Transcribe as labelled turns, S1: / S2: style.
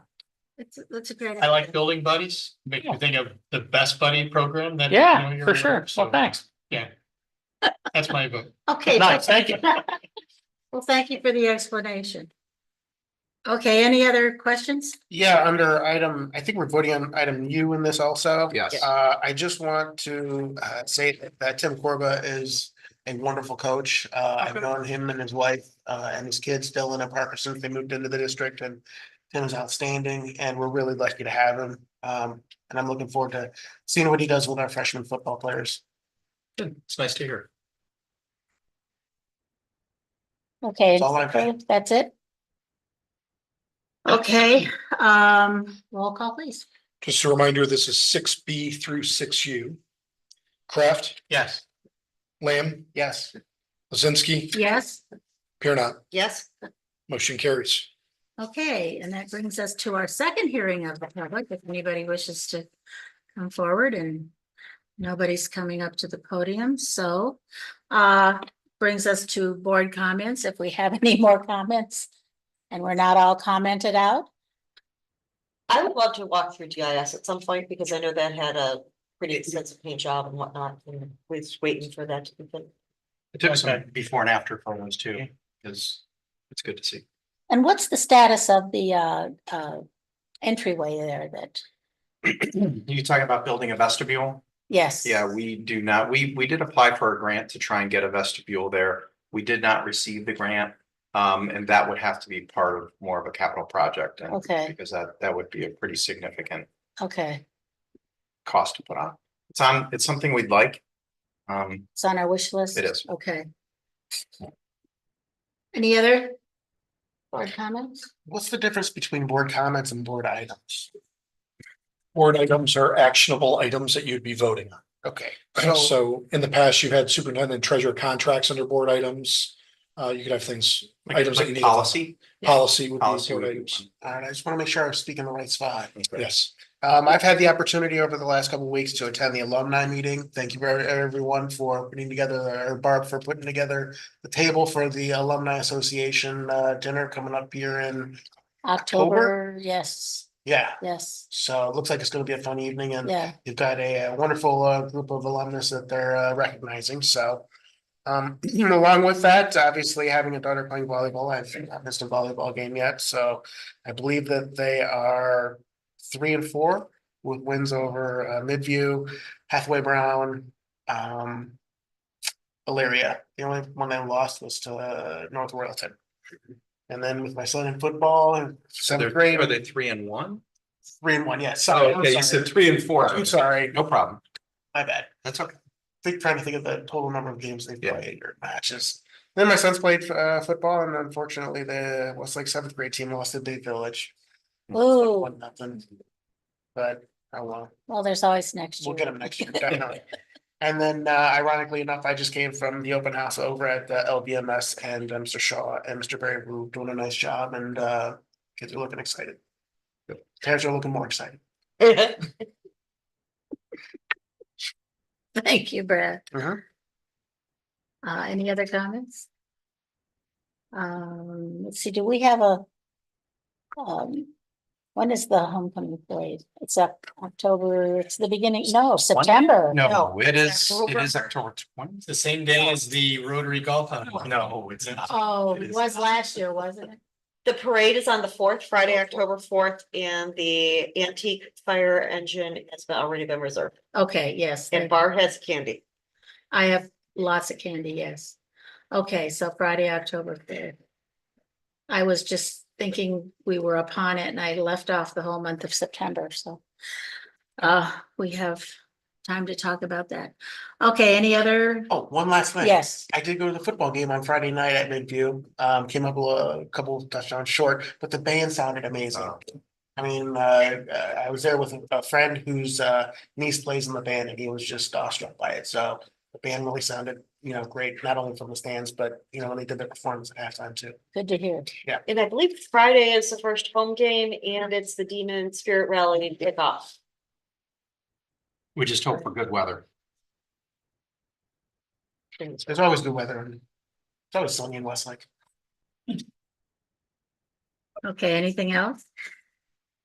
S1: That's, that's a great.
S2: I like
S1: idea.
S2: building buddies, make you
S3: Yeah.
S2: think of the best buddy program that. you know,
S3: Yeah,
S2: you're
S3: for
S2: aware
S3: sure.
S2: of, so
S3: Well, thanks.
S2: That's my vote.
S1: Okay.
S3: Nice, thank you.
S1: Well, thank you for the explanation. Okay, any other questions?
S4: Yeah, under item, I think we're voting on item U in this also.
S5: Yes.
S4: Uh, I just want to uh say that- that Tim Corba is a wonderful coach. Uh, I've known him and his wife uh and his kids, Dylan and Parker, since they moved into the district and Tim is outstanding and we're really lucky to have him. Um, and I'm looking forward to seeing what he does with our freshman football players.
S2: It's nice to hear.
S6: Okay,
S4: That's all I've got.
S6: that's it?
S1: Okay, um, roll call please.
S7: Just a reminder, this is six B through six U. Kraft,
S2: Yes.
S7: Lamb,
S4: Yes,
S7: Lazinski,
S1: Yes?
S7: Pier not,
S1: Yes.
S7: motion carries.
S1: Okay, and that brings us to our second hearing of the public, if anybody wishes to come forward and nobody's coming up to the podium, so uh brings us to board comments, if we have any more comments. And we're not all commented out.
S8: I would love to walk through GIS at some point because I know that had a pretty extensive paint job and whatnot, and we're just waiting for that to be done.
S5: I took some
S2: Okay.
S5: before and after photos too,
S2: Yeah.
S5: because it's good to see.
S6: And what's the status of the uh uh entryway there that,
S5: You talking about building a vestibule?
S6: yes?
S5: Yeah, we do not, we, we did apply for a grant to try and get a vestibule there. We did not receive the grant. Um, and that would have to be part of more of a capital project and
S6: Okay.
S5: because that, that would be a pretty significant
S6: Okay,
S5: cost to put on. It's on, it's something we'd like. Um,
S6: it's on our wish list?
S5: It is.
S6: Okay,
S1: Any other board comments?
S4: what's the difference between board comments and board items?
S7: Board items are actionable items that you'd be voting on.
S4: Okay, so
S7: So in the past, you've had superintendent and treasurer contracts under board items. Uh, you could have things, items that you
S5: like
S7: need.
S5: policy,
S7: Policy would be
S5: policy.
S7: board
S5: would be
S7: items.
S4: all right, I just want to make sure I was speaking the right spot.
S5: one.
S7: Yes,
S4: Um, I've had the opportunity over the last couple of weeks to attend the alumni meeting. Thank you very everyone for putting together, or Barb for putting together the table for the Alumni Association uh dinner coming up here in, October?
S6: October, yes,
S4: yeah.
S6: yes,
S4: So it looks like it's gonna be a fun evening and
S6: yeah,
S4: you've got a uh, wonderful uh group of alumnus that they're uh recognizing, so. Um, along with that, obviously having a daughter playing volleyball, I've not missed a volleyball game yet, so I believe that they are. Three and four with wins over uh Midview, Hathaway Brown, um. Elyria, the only one they lost was to uh North Royalton. And then with my son in football in seventh grade,
S5: Are they three and one?
S4: three and one, yeah, sorry,
S5: Oh,
S4: I'm
S5: okay, you
S4: sorry.
S5: said three and four.
S4: I'm sorry,
S5: No problem.
S4: my bad.
S5: That's okay.
S4: think trying to think of the total number of games they've
S5: Yeah.
S4: played or matches. Then my son's played uh, football, and unfortunately, the Westlake seventh grade team lost to Bay Village.
S1: Oh.
S6: Ooh.
S4: One nothing. But oh well,
S6: well, there's always next year.
S4: we'll get them next year. definitely. And then, uh, ironically enough, I just came from the open house over at the LBMS, and uh, Mr. Shaw and Mr. Berry were doing a nice job, and uh, kids are looking excited. Parents are looking more excited.
S1: Thank you, Brad.
S4: Uh-huh.
S1: Uh, any other comments?
S6: Um, let's see, do we have a? Um, when is the homecoming parade? It's up October, it's the beginning, no, September.
S5: No, it
S8: it's
S5: is, it is October twentieth.
S2: It's the same day as the Rotary Golf. Hunt.
S5: No, it's not.
S1: Oh,
S5: It
S1: it
S5: is-
S1: was last year, wasn't it?
S8: The parade is on the fourth, Friday, October fourth, and the antique fire engine has been- already been reserved.
S1: Okay, yes. there-
S8: And bar has candy.
S1: I have lots of candy, yes. Okay, so Friday, October fifth. I was just thinking we were upon it and I left off the whole month of September, so. Uh, we have time to talk about that. Okay, any other?
S4: Oh, one last thing.
S6: Yes,
S4: I did go to the football game on Friday night at Midview. Um, came up a lo- a couple of touchdowns short, but the band sounded amazing.
S5: Oh.
S4: I mean, uh, uh, I was there with a friend whose uh niece plays in the band, and he was just awestruck by it. So the band really sounded, you know, great, not only from the stands, but you know, when they did their performance at halftime too.
S6: good to hear.
S8: And I believe Friday is the first home game and it's the Demon Spirit Rally kickoff.
S5: We just hope for good weather.
S4: There's always good weather. and It's always sunny in Westlake.
S1: Okay, anything else?